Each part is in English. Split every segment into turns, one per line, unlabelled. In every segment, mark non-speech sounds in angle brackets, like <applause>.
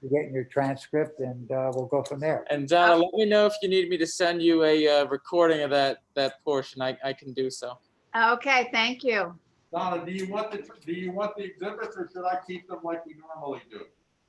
for getting your transcript and uh, we'll go from there.
And Donna, let me know if you need me to send you a uh, recording of that, that portion. I, I can do so.
Okay, thank you.
Donna, do you want the, do you want the exhibits or should I keep them like we normally do?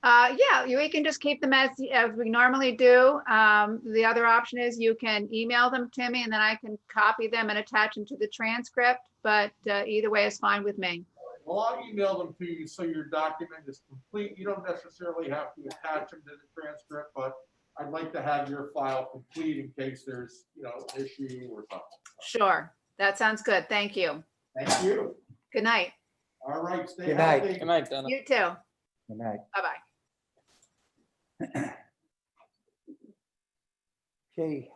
Uh, yeah, you- we can just keep them as, as we normally do. Um, the other option is you can email them to me and then I can copy them and attach them to the transcript. But, uh, either way is fine with me.
Well, I'll email them to you so your document is complete. You don't necessarily have to attach them to the transcript, but I'd like to have your file complete in case there's, you know, issue or something.
Sure. That sounds good. Thank you.
Thank you.
Good night.
All right, stay
Good night.
healthy.
Good night, Donna.
You too.
Good night.
Bye-bye.
<clears throat> Okay.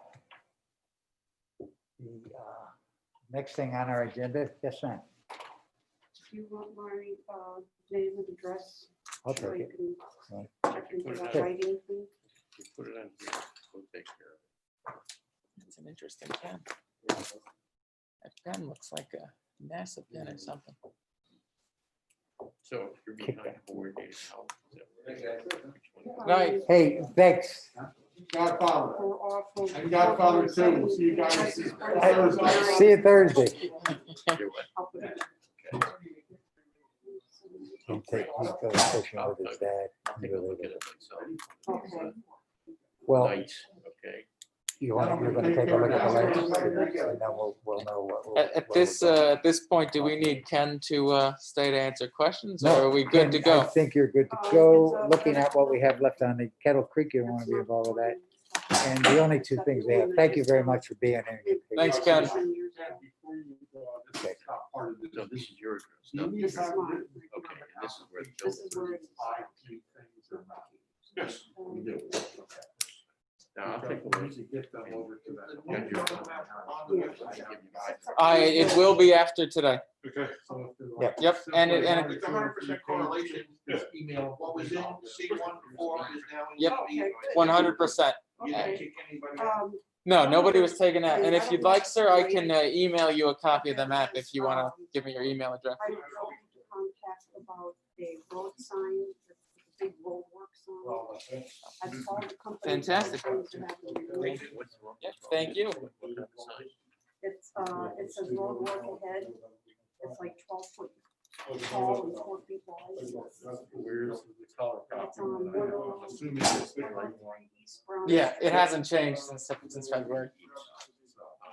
The uh, next thing on our agenda, yes, ma'am.
Do you want my uh, name and address?
I'll
so
take
you
it.
can
Right.
check into that
Sure.
writing thing?
Put it on here. We'll take care of
It's an interesting pen. That pen looks like a NASA pen or something.
it. So if you're behind board, you know, so- Which one?
Night.
Hey, thanks.
Godfather.
We're awful.
And Godfather too. We'll see you guys.
See you Thursday.
Either way.
He take- he goes fishing with his dad.
I'll take a look at it myself.
Okay.
Well,
Nights, okay.
you want, you're gonna take a look at the lights, and then we'll, we'll know what. we'll-
At, at
where
this,
we're going.
uh, at this point, do we need Ken to, uh, stay to answer questions or
No,
are we good to
Ken, I
go?
think you're good to go. Looking at what we have left on the Kettle Creek, you want to be involved with that. And the only two things we have. Thank you very much for being here.
Thanks,
um,
Ken.
Before you go, this is not part of the-
So this is your address.
You
no?
need to have written-
Okay, and this is where the
This is where
building.
it's-
Five key things or not.
Yes, we do. Now, I'll
Because
take a
we
look.
need to Get them over to that.
Yeah, you're-
I, it will be after today.
Okay. So if they're like-
Yep.
Yep, and it- and it-
It's a hundred percent correlation, just email.
What was in C one before is now. in
Yep.
C.
One hundred Uh, percent.
You didn't kick anybody out.
Um,
No, nobody was taken out. And if you'd like, sir, I can, uh, email you a copy of the map if you wanna give me your email address.
I was going to contact about a road sign, the big road work sign.
Well, mm-hmm. that's it.
I've called the company.
Fantastic.
It's,
What's wrong?
Yep, thank you.
What kind of sign?
uh, it says road work ahead. It's like twelve foot
Oh,
tall and four feet wide.
Where's the color
It's on
copy?
Woodlawn.
I'm Assuming it's the right one.
East Brown.
Yeah, it hasn't changed since, since February.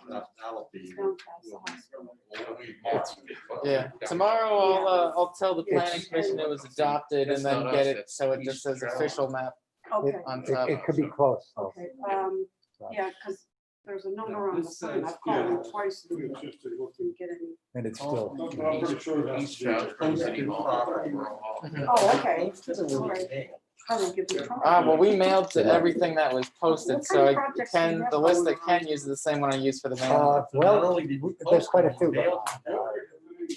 That- That'll be.
It's down past the hospital.
Yeah, tomorrow I'll, uh, I'll tell the planning
It's-
commission it was adopted and
That's
then
not
get
us,
it,
that's
so it just says
East
official map
Okay,
<laughs>
on
It,
top.
it could be close. though.
okay, um, yeah, because there's a number on the sign, I've called them twice and didn't get any.
And it's still.
I'm pretty sure that's.
East Stroudsburg City Hall.
Oh, okay, all right. I will give you. a call.
Ah, well, we mailed to everything that was posted, so I Ken, the list that Ken uses the same one I use for the
Uh,
mail.
well, there's quite a few.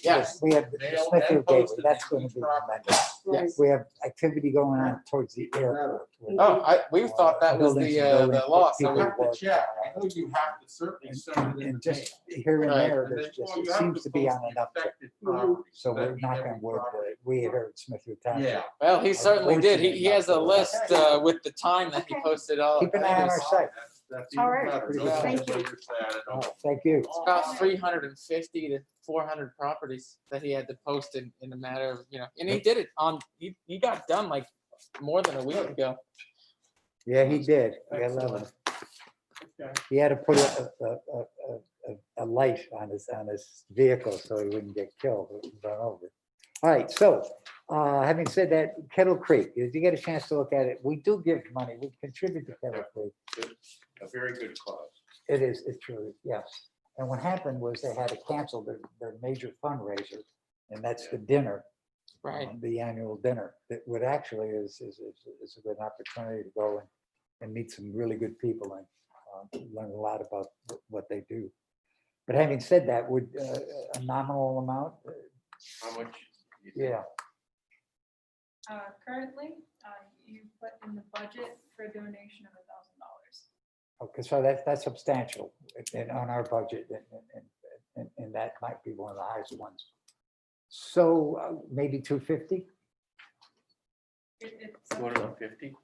Yes.
We have the
Mail and
Smithfield Gateway.
posted
That's
in
going to
each
be
property.
tremendous.
Right.
We have activity going on towards the airport.
Oh, I, we thought that was the, uh, the law,
I
so we,
have to check. I know you have to certainly send it in
And
the mail.
just here and
Right.
there,
And
there's
then,
just,
well,
it
you have
seems to be
post
on
the
an uptick.
affected property.
So we're
That'd be
knocking
every
wood,
property.
but we here at Smithfield Township.
Yeah.
well, he certainly did. He, he has a list, uh, with the time that he posted all.
Keep an eye on our
It's
site.
That's- that's
All
even
right.
better.
Pretty
Don't
good.
send
Thank
it to your dad at all.
Thank you.
Oh.
about three hundred and fifty to four hundred properties that he had to post in, in a matter of, you know, and he did it on, he, he got done like more than a week ago.
Yeah, he did. We had love him.
Okay.
He had to put a, a, a, a- a, a light on his, on his vehicle so he wouldn't get killed, or run over. All right, so, uh, having said that, Kettle Creek, if you get a chance to look at it, we do give money, we contribute to Kettle Creek.
A very good cause.
It is, it's true, yes. And what happened was they had to cancel their, their major fundraiser, and that's the dinner.
Right,
um, The annual dinner, that would actually is, is, is, is a good opportunity to go and, and meet some really good people and uh, learn a lot about wh- what they do. But having said that, would uh, a nominal amount, uh,
How much? you think?
yeah,
Uh, currently, uh, you put in the budget for a donation of a thousand dollars.
okay, Oh, so that's, that's substantial and on our budget and, and- and, and, and that might be one of the highest ones. So uh, maybe two fifty?
It, it's,
Two
up-
hundred and fifty?